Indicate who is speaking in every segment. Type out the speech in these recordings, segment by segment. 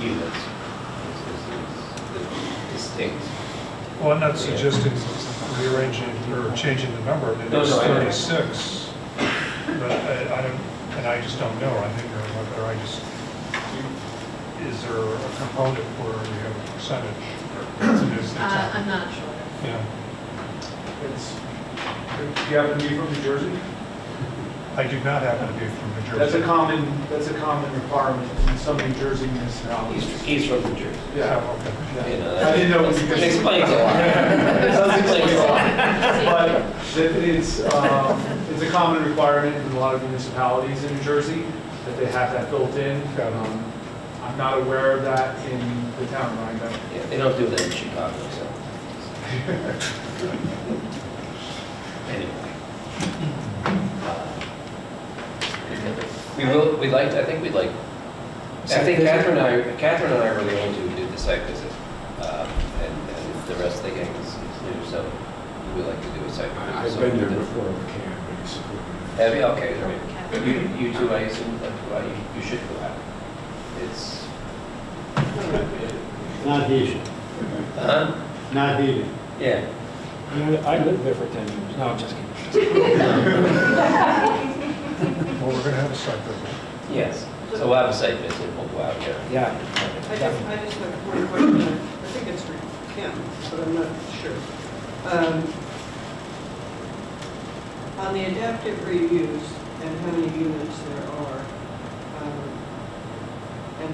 Speaker 1: units is- is- is distinct.
Speaker 2: Well, I'm not suggesting rearranging or changing the number, I mean,
Speaker 1: No,
Speaker 2: it's
Speaker 1: no, I know.
Speaker 2: 36, but I I don't, and I just don't know, I think, or whether I just, is there a component where you have a percentage? Is it-
Speaker 3: Uh, I'm not sure.
Speaker 2: Yeah,
Speaker 4: It's, do you happen to be from New Jersey?
Speaker 2: I do not happen to be from New Jersey.
Speaker 4: That's a common, that's a common requirement in some New Jersey municipalities.
Speaker 1: He's, he's from New Jersey.
Speaker 4: Yeah.
Speaker 2: Oh, okay.
Speaker 4: yeah.
Speaker 1: You know,
Speaker 4: I didn't know. it was
Speaker 1: It
Speaker 4: because-
Speaker 1: explains a lot.
Speaker 4: It does explain a lot.
Speaker 3: So
Speaker 4: But that it's, um, it's a common requirement in a lot of municipalities in New Jersey that they have that built in.
Speaker 2: Got it.
Speaker 4: Um, I'm not aware of that in the town of Rhinebeck.
Speaker 1: Yeah, They don't do that in Chicago, so. Anyway. We will, we'd like, I think we'd like, I think Catherine and I, Catherine and I were the only two who did the site visit. um, And and the rest of the gang is is new, so we'd like to do a site visit.
Speaker 5: I've
Speaker 1: So
Speaker 5: been
Speaker 1: we
Speaker 5: there
Speaker 1: did-
Speaker 5: before, I can, basically.
Speaker 1: Have you? Okay, all right. You, you two, I assume, that uh, you- you should go out. It's,
Speaker 6: Not heated,
Speaker 1: huh?
Speaker 6: not heated.
Speaker 1: Yeah.
Speaker 5: I lived there for 10 years. No, I'm just kidding.
Speaker 2: Well, we're going to have a site visit.
Speaker 1: Yes. So we'll have a site visit, we'll go out there.
Speaker 5: Yeah.
Speaker 7: I just, I just have one question. I think it's for Kim, but I'm not sure. Um, On the adaptive reuse and how many units there are, um, and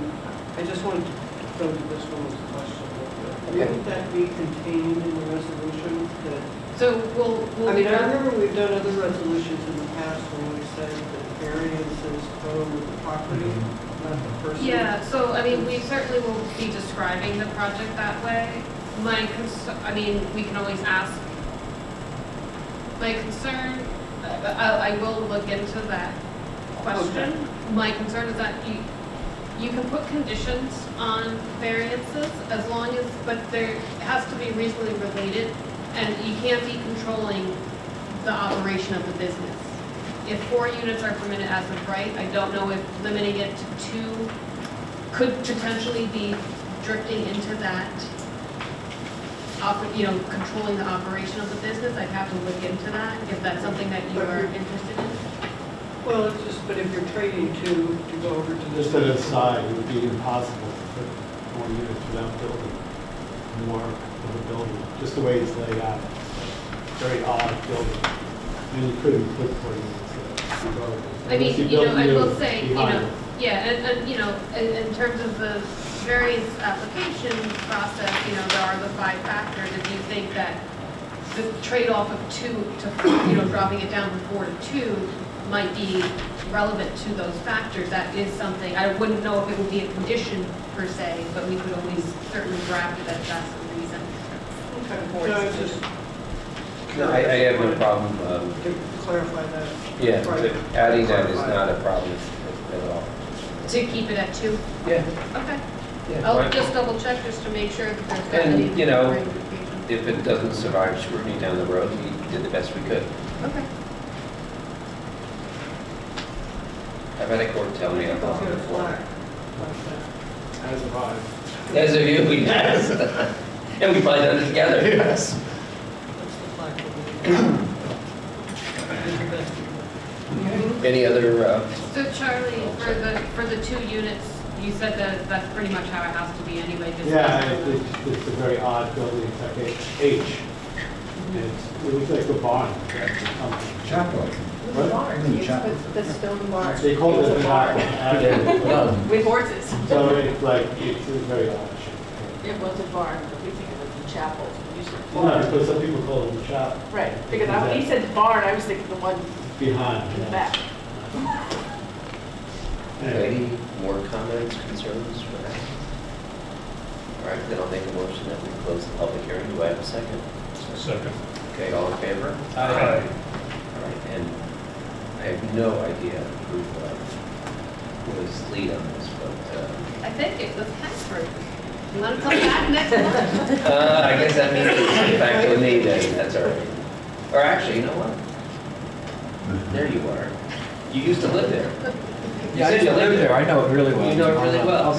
Speaker 7: I just wanted to go to this one's question. a little bit.
Speaker 1: Okay.
Speaker 7: Wouldn't that be contained in the resolution that
Speaker 3: we'll,
Speaker 7: I
Speaker 3: we'll be
Speaker 7: mean, I
Speaker 3: done.
Speaker 7: remember we've done other resolutions in the past when we said that variances go with the property, not the person.
Speaker 3: Yeah, so, I mean, we certainly will be describing the project that way. My concern, I mean, we can always ask. My concern, I- I, I will look into that question. My concern is that you, you can put conditions on variances as long as, but there has to be reasonably related, and you can't be controlling the operation of the business. If four units are permitted as of right, I don't know if limiting it to two could potentially be drifting into that, op- you know, controlling the operation of the business. I'd have to look into that, if that's something that you are interested in.
Speaker 7: Well, it's just, but if you're trading two to go over to this.
Speaker 6: Just an aside, it would be impossible to put more units without building more of a building, just the way it's laid out. Very odd building, and you couldn't put four units there. regardless.
Speaker 3: I
Speaker 6: Unless
Speaker 3: mean, you know,
Speaker 6: built
Speaker 3: I will
Speaker 6: units
Speaker 3: say, you
Speaker 6: behind
Speaker 3: know,
Speaker 6: it.
Speaker 3: yeah, and, and, you know, in, in terms of the variance application process, you know, there are the five factors, if you think that the trade-off of two to, you know, dropping it down from four to two might be relevant to those factors, that is something, I wouldn't know if it would be a condition per se, but we could always certainly draft it as that's the reason.
Speaker 7: Okay, no, it's just
Speaker 1: No, I, I have no problem, um,
Speaker 7: to clarify that.
Speaker 1: yeah,
Speaker 7: Right.
Speaker 1: adding that is not a problem at all.
Speaker 3: To keep it at two,
Speaker 1: Yeah,
Speaker 3: okay. I'll
Speaker 1: yeah.
Speaker 3: just double check just to make sure that there's not
Speaker 1: And,
Speaker 3: any.
Speaker 1: you know,
Speaker 3: ramifications.
Speaker 1: If it doesn't survive scrutiny down the road, we did the best we could.
Speaker 3: Okay.
Speaker 1: I've had a court tell me I'm wrong
Speaker 7: Get a
Speaker 1: before.
Speaker 7: flag like that.
Speaker 4: As a vibe.
Speaker 1: As of you, we passed. And we probably done it together. Yes.
Speaker 7: That's the flag we're
Speaker 1: Any other, uh,
Speaker 3: So Charlie, for the, for the two units, you said that that's pretty much how it has to be anyway, just.
Speaker 6: Yeah, it- it's, it's a very odd building, it's like a H. It's, it looks like a barn, that's something.
Speaker 5: Chapel.
Speaker 8: The stone bar.
Speaker 6: They call it a
Speaker 8: It's
Speaker 6: barn.
Speaker 1: no,
Speaker 8: With horses.
Speaker 6: So it's like, it's a very odd shape.
Speaker 8: It was a barn, but we think of it as a chapel. We used to-
Speaker 6: No, because some people call it a shop
Speaker 8: Right, because I- when he said barn, I was thinking the one
Speaker 6: behind.
Speaker 8: in the
Speaker 6: yeah.
Speaker 8: back.
Speaker 6: Anyway.
Speaker 1: Any more comments, concerns for that? All right, then I'll make a motion that we close the public hearing. Do I have a second?
Speaker 2: Second.
Speaker 1: Okay, all in favor?
Speaker 2: Aye.
Speaker 1: All right, and I have no idea who uh, was lead on this, but uh,
Speaker 3: I think it was Hanford. You want to come back next month?
Speaker 1: uh, I guess that means it's back to me then, that's all right. Or actually, you know what? There you are. You used to live there. You
Speaker 5: Yeah, I
Speaker 1: said you
Speaker 5: used to live there, I know it really well.
Speaker 1: You know it really well.
Speaker 5: I'll be